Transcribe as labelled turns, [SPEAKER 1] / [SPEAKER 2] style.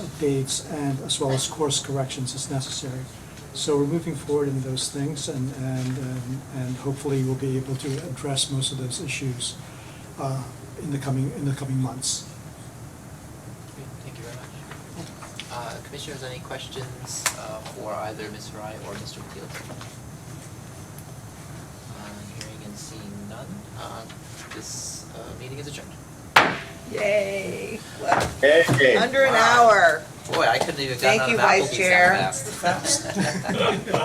[SPEAKER 1] updates and as well as course corrections as necessary. So we're moving forward in those things and, and, um, and hopefully we'll be able to address most of those issues uh, in the coming, in the coming months.
[SPEAKER 2] Great, Thank you very much. Uh, Commissioners, any questions uh, for either Ms. Frye or Mr. McKeel? Uh, Hearing and seeing none, uh, this uh, meeting is adjourned.
[SPEAKER 3] Yay. Well,
[SPEAKER 4] Hey.
[SPEAKER 3] Under an
[SPEAKER 2] Wow.
[SPEAKER 3] hour.
[SPEAKER 2] Boy, I couldn't even have
[SPEAKER 3] Thank
[SPEAKER 2] gotten
[SPEAKER 3] you,
[SPEAKER 2] out of
[SPEAKER 3] Vice
[SPEAKER 2] Applebee's
[SPEAKER 3] Chair.
[SPEAKER 2] that fast.